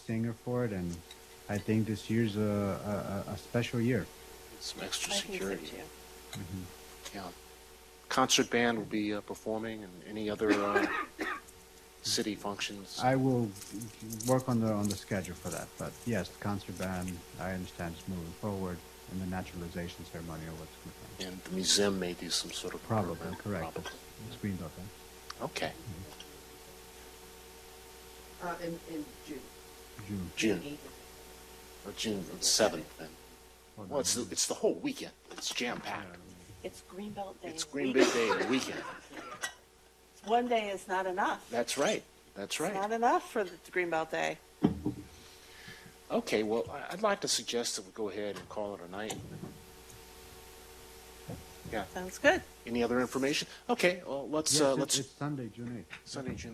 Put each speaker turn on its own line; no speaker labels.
singer for it, and I think this year's a, a, a special year.
Some extra
I think so
security.
too.
Mhm.
Yeah. Concert band will be uh, performing and any other uh, city functions.
I will work on the on the schedule for that. But yes, the concert band, I understand, is moving forward, and the naturalization ceremony or what's going on.
And the museum may do some sort of
Probably
program,
correct.
probably.
It's green dot. huh?
Okay,
Uh, in, in June.
June.
June,
eighth.
or June 7th then. Well, it's, the- it's the whole weekend. It's jam-packed.
It's Greenbelt Day.
It's Green Big Day and weekend.
One day is not enough.
That's right, that's
It's
right.
Not enough for the Greenbelt Day.
Okay, well, I- I'd like to suggest that we go ahead and call it a night.
Sounds good.
Any other information? Okay, well, let's, uh,
Yes, it-
let's,
It's Sunday, June eighth.
Sunday, June